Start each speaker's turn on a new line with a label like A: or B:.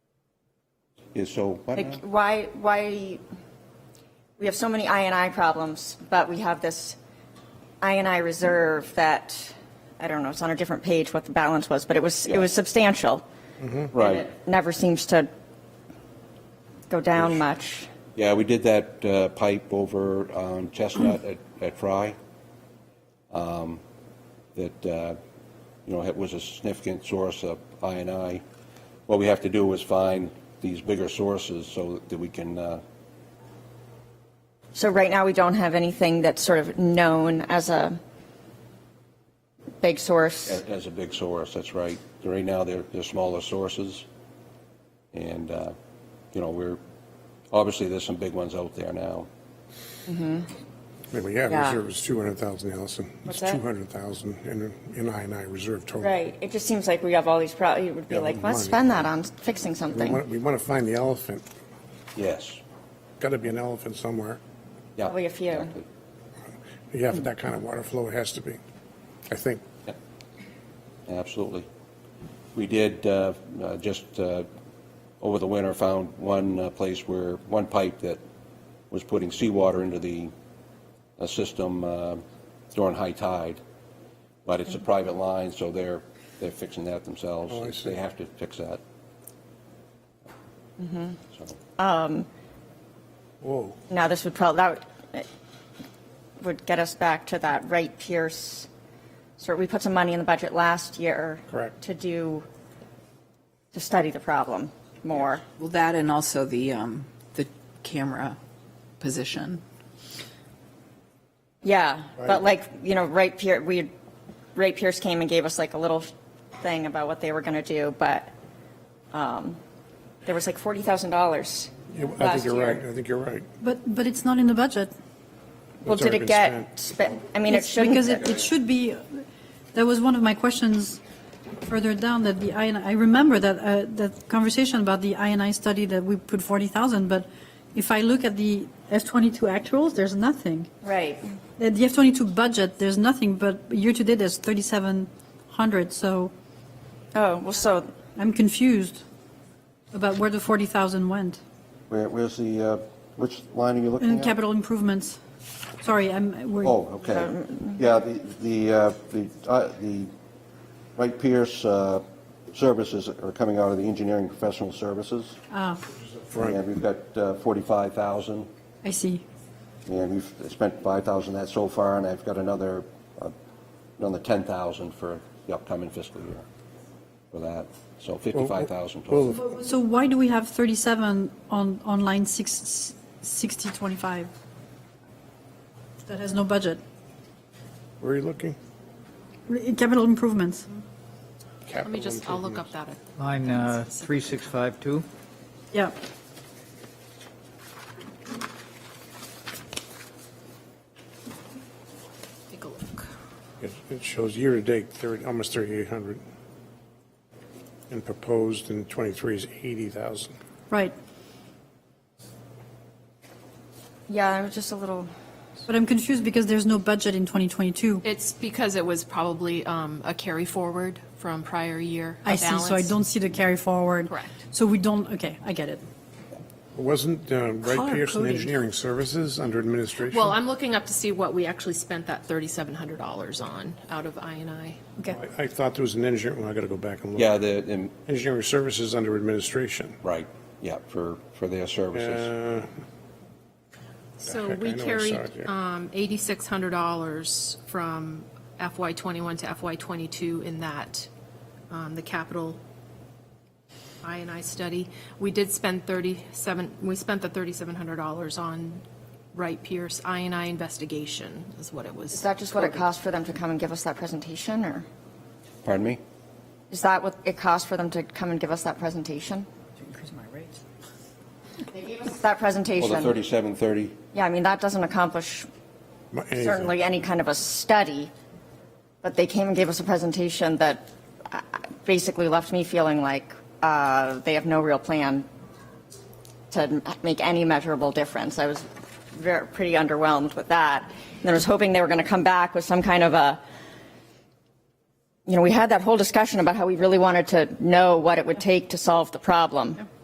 A: is so, what now?
B: Like, why, why, we have so many I and I problems, but we have this I and I reserve that, I don't know, it's on a different page what the balance was, but it was, it was substantial. And
A: Right.
B: it Never seems to go down much.
A: Yeah, we did that uh, pipe over on Chestnut at- at Fry. um, That, uh, you know, it was a significant source of I and I. What we have to do is find these bigger sources so that we can, uh,
B: So right now, we don't have anything that's sort of known as a big source.
A: as as a big source, that's right. Right now, they're, they're smaller sources. And, uh, you know, we're, obviously, there's some big ones out there now.
C: Well, yeah,
B: Yeah.
C: reserve is 200,000, Allison.
B: What's
C: It's
B: that?
C: 200,000 in, in I and I reserve total.
B: Right, it just seems like we have all these problems, it would be
C: Yeah,
B: like, let's
C: money.
B: spend that on fixing
C: We want,
B: something.
C: we want to find the elephant.
A: Yes.
C: Got to be an elephant somewhere.
A: Yeah.
B: Probably a few.
A: exactly.
C: Yeah, for that kind of water flow, it has to be, I think.
A: Absolutely. We did, uh, uh, just uh, over the winter, found one uh, place where, one pipe that was putting seawater into the uh, system uh, during high tide, but it's a private line, so they're, they're fixing that themselves.
C: Mm-hmm. Oh, I see.
A: They have to fix that.
C: Mm-hmm.
A: So,
C: Whoa,
B: Now, this would probably, that would- would get us back to that Wright Pierce, so we put some money in the budget last year.
C: Correct.
B: To do, to study the problem more.
D: Well, that and also the, um, the camera position.
B: Yeah, but
C: Right.
B: like, you know, Wright Pierce, we, Wright Pierce came and gave us like a little thing about what they were going to do, but um, there was like $40,000.
C: Yeah, I
B: Last
C: think you're
B: year.
C: right, I think you're right.
E: But, but it's not in the budget.
B: Well,
C: It's
B: did
C: already
B: it
C: been
B: get, spent? I mean, it
E: It's Because
B: shouldn't,
E: it, it should be, that was one of my questions further down, that the I and, I remember that, uh, that conversation about the I and I study that we put 40,000, but if I look at the F-22 actuals, there's nothing.
B: right,
E: At the F-22 budget, there's nothing, but year-to-date, there's 3,700, so
B: oh, well, so,
E: I'm confused about where the 40,000 went.
A: Where, where's the, uh, which line are you looking at?
E: In capital improvements, sorry, I'm, we're.
A: Oh, okay. Yeah, the, the, uh, the, uh, the Wright Pierce uh, services are coming out of the engineering professional services.
E: Ah,
A: And we've got uh, 45,000,
E: I see.
A: and we've spent 5,000 that so far, and I've got another, uh, another 10,000 for the upcoming fiscal year for that. So 55,000 total.
C: Well,
E: So why do we have 37 on, on line six- 60, 25? That has no budget.
C: where are you looking?
E: Re- Capital improvements.
D: Let me just, I'll look up that.
F: Line uh, 3652.
E: Yeah.
D: Take a look.
C: It it shows year-to-date, 30, almost 3,800. And proposed in '23 is 80,000.
E: Right.
B: yeah, I was just a little,
E: But I'm confused because there's no budget in 2022.
G: It's because it was probably um, a carry forward from prior year. a
E: I see, so I
G: balance.
E: don't see the carry forward.
G: Correct.
E: So we don't, okay, I get it.
C: Wasn't uh, Wright
E: Color
C: Pearson
E: coding.
C: Engineering Services under administration?
G: Well, I'm looking up to see what we actually spent that $3,700 on out of I and I.
E: Okay.
C: I- I thought there was an engineer, well, I got to go back and look.
A: Yeah, the, and-
C: Engineering Services under administration.
A: right, yeah, for, for their services.
C: Uh,
G: So
C: heck, I
G: we
C: know I saw
G: carried
C: it here.
G: um, $8,600 from FY '21 to FY '22 in that, um, the capital I and I study. We did spend 37, we spent the $3,700 on Wright Pierce I and I investigation is what it was.
B: is that just what it cost for them to come and give us that presentation, or
A: Pardon me?
B: is that what it cost for them to come and give us that presentation?
D: Increase my rates.
B: That
A: Well, the
B: presentation,
A: 3730,
B: yeah, I mean, that doesn't accomplish
C: my- anything.
B: certainly any kind of a study, but they came and gave us a presentation that uh, basically left me feeling like uh, they have no real plan to m- make any measurable difference. I was very, pretty underwhelmed with that. And I was hoping they were going to come back with some kind of a, you know, we had that whole discussion about how we really wanted to know what it would take to solve the problem.